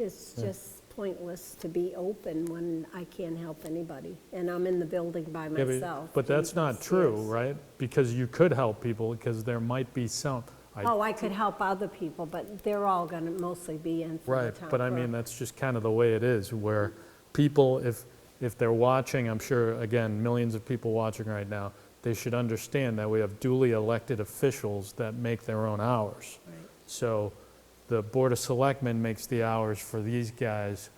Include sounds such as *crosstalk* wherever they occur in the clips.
It's just pointless to be open when I can't help anybody, and I'm in the building by Yeah, but- myself. But that's not true, Yes. right? Because you could help people, because there might be some, I, Oh, I could help other people, but they're all going to mostly be in for the right, town but I mean, clerk. that's just kind of the way it is, where people, if, if they're watching, I'm sure, again, millions of people watching right now, they should understand that we have duly elected officials that make their own hours. Right. So the Board of Selectmen makes the hours for these guys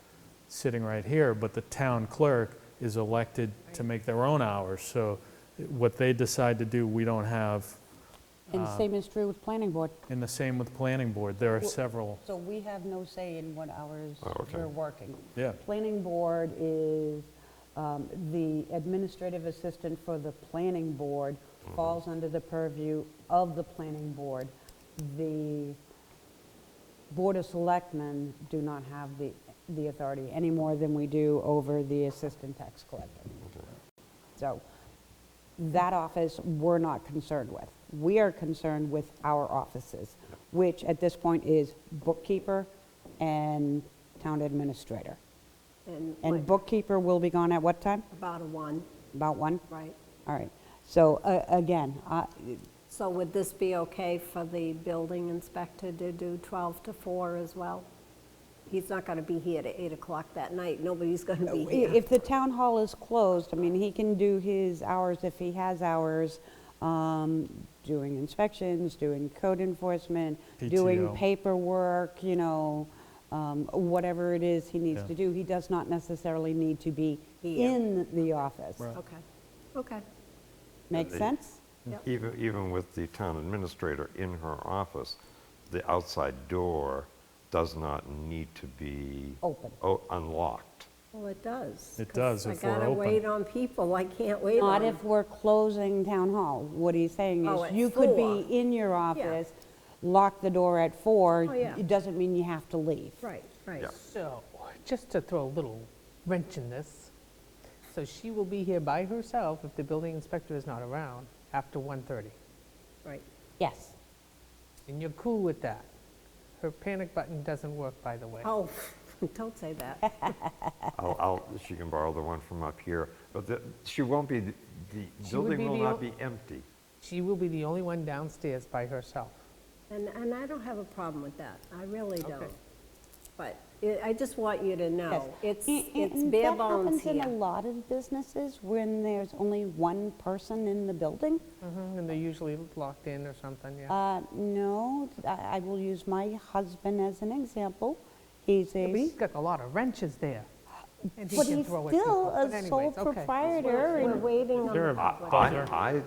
sitting right here, but the town clerk is elected to make their own hours. So what they decide to do, we don't have, And Uh, the same is true with planning board. and the same with Planning Board. There are several, So we have no say in what hours Oh, okay. we're working. yeah. Planning board is, um, the administrative assistant for the planning board falls under the purview of the planning board. The board of selectmen do not have the, the authority any more than we do over the assistant tax collector. So that office, we're not concerned with. We are concerned with our offices, which at this point is bookkeeper and town administrator. And And like, bookkeeper will be gone at what time? about a one, About one? right? All right. So uh, again, I- So would this be okay for the building inspector to do 12 to 4 as well? He's not going to be here to 8 o'clock that night, nobody's going to be i- here. if the town hall is closed, I mean, he can do his hours if he has hours, um, doing inspections, doing code enforcement, doing PTO. paperwork, you know, um, whatever it is he needs Yeah. to do. He does not necessarily need to be Here. in the office. Right. Okay, okay, Make They- sense? Yep. Even, even with the town administrator in her office, the outside door does not need to be. Open. o- Unlocked. well, it does. It 'cause does if we're I gotta open. wait on people, I can't wait on Not them. if we're closing town hall. What he's saying Um, Oh, is, at you could four. be in your office, lock the door at four. Oh, yeah. It doesn't mean you have to leave. *laughs* Right, right. Yeah. So, just to throw a little wrench in this, so she will be here by herself if the building inspector is not around after 1:30. Right. Yes. And you're cool with that. Her panic button doesn't work, by the way. Oh, *laughs* don't say that. I'll, I'll, she can borrow the one from up here, but the, she won't be, the She would building be will the not o- be empty. She will be the only one downstairs by herself. And, and I don't have a problem with that, I really Okay. don't. But it- I just want you to Yes. know, it's, And- it's and bare bones That happens in a here. lot of businesses when there's only one person in the building. Mm. Mhm, And they're usually locked in or something, yeah. Mm-hmm. Uh, No, I I will use my husband as an example. He's But a, he's got a lot of wrenches there. and he but can he's throw at still people. But a anyways, sole okay. proprietor We're and waiting on Is there the a public. buzzer? I,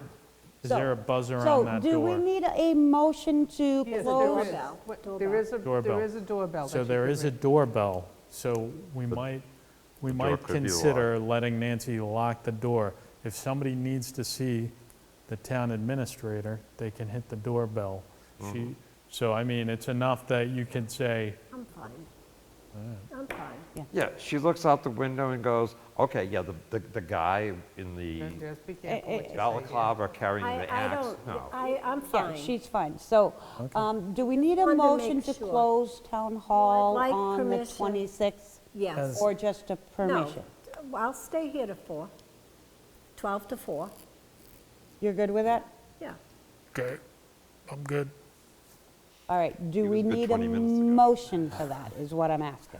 Is there a buzzer So- on that So do we door? need a motion to Yes, there close? is. Doorbell. What- Doorbell. There is a, Doorbell. there is a doorbell. that So she there can is a ring. doorbell, so we might, we door might could be consider letting Nancy lock the door. If somebody needs to see the town administrator, they can hit the doorbell. Mm-hmm. She, so I mean, it's enough that you can say, I'm fine. I'm fine. yeah, she looks out the window and goes, okay, yeah, the, the, the guy in Just- the Eh, Just be careful what you say, yeah. balaclava carrying I, the I axe. don't, No. I, I'm Yeah, fine. she's fine. So um, do we need a Wanted to motion make to sure. close town hall like on the permission. 26th? Yes. Or just a No, permission? I'll stay here to four, 12 to four, You're good with that? yeah. okay, I'm good. All right, do It was we good need a 20 minutes ago. motion for that, is what I'm asking?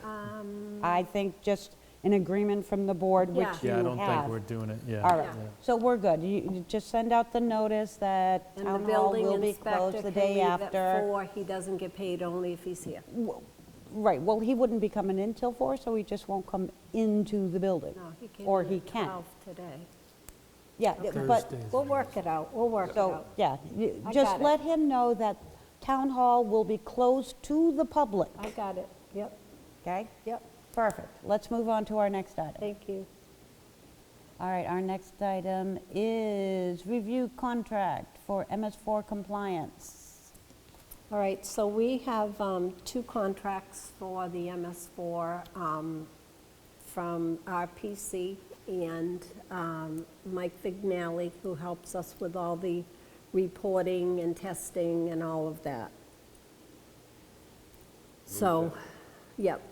I think just an agreement from the board, which Um, Yeah. you Yeah, I don't think have. we're doing it, yeah. All right, Yeah. so we're good. You you just send out the notice that And the town hall building will be inspector closed can the day leave at after. four, he doesn't get paid only if he's here. Right, well, he wouldn't be coming in till four, so he just won't come into the building. No, he came Or in he at can. 12 today. Yeah, but, We'll work it out, we'll work it so, out. yeah, you- I got just it. let him know that town hall will be closed to the public, I got it, yep, okay? yep, Perfect. Let's move on to our next item. thank you. All right, our next item is review contract for MS4 compliance. All right, so we have um, two contracts for the MS4 um, from RPC and um, Mike Vignali, who helps us with all the reporting and testing and all of that. So, yep,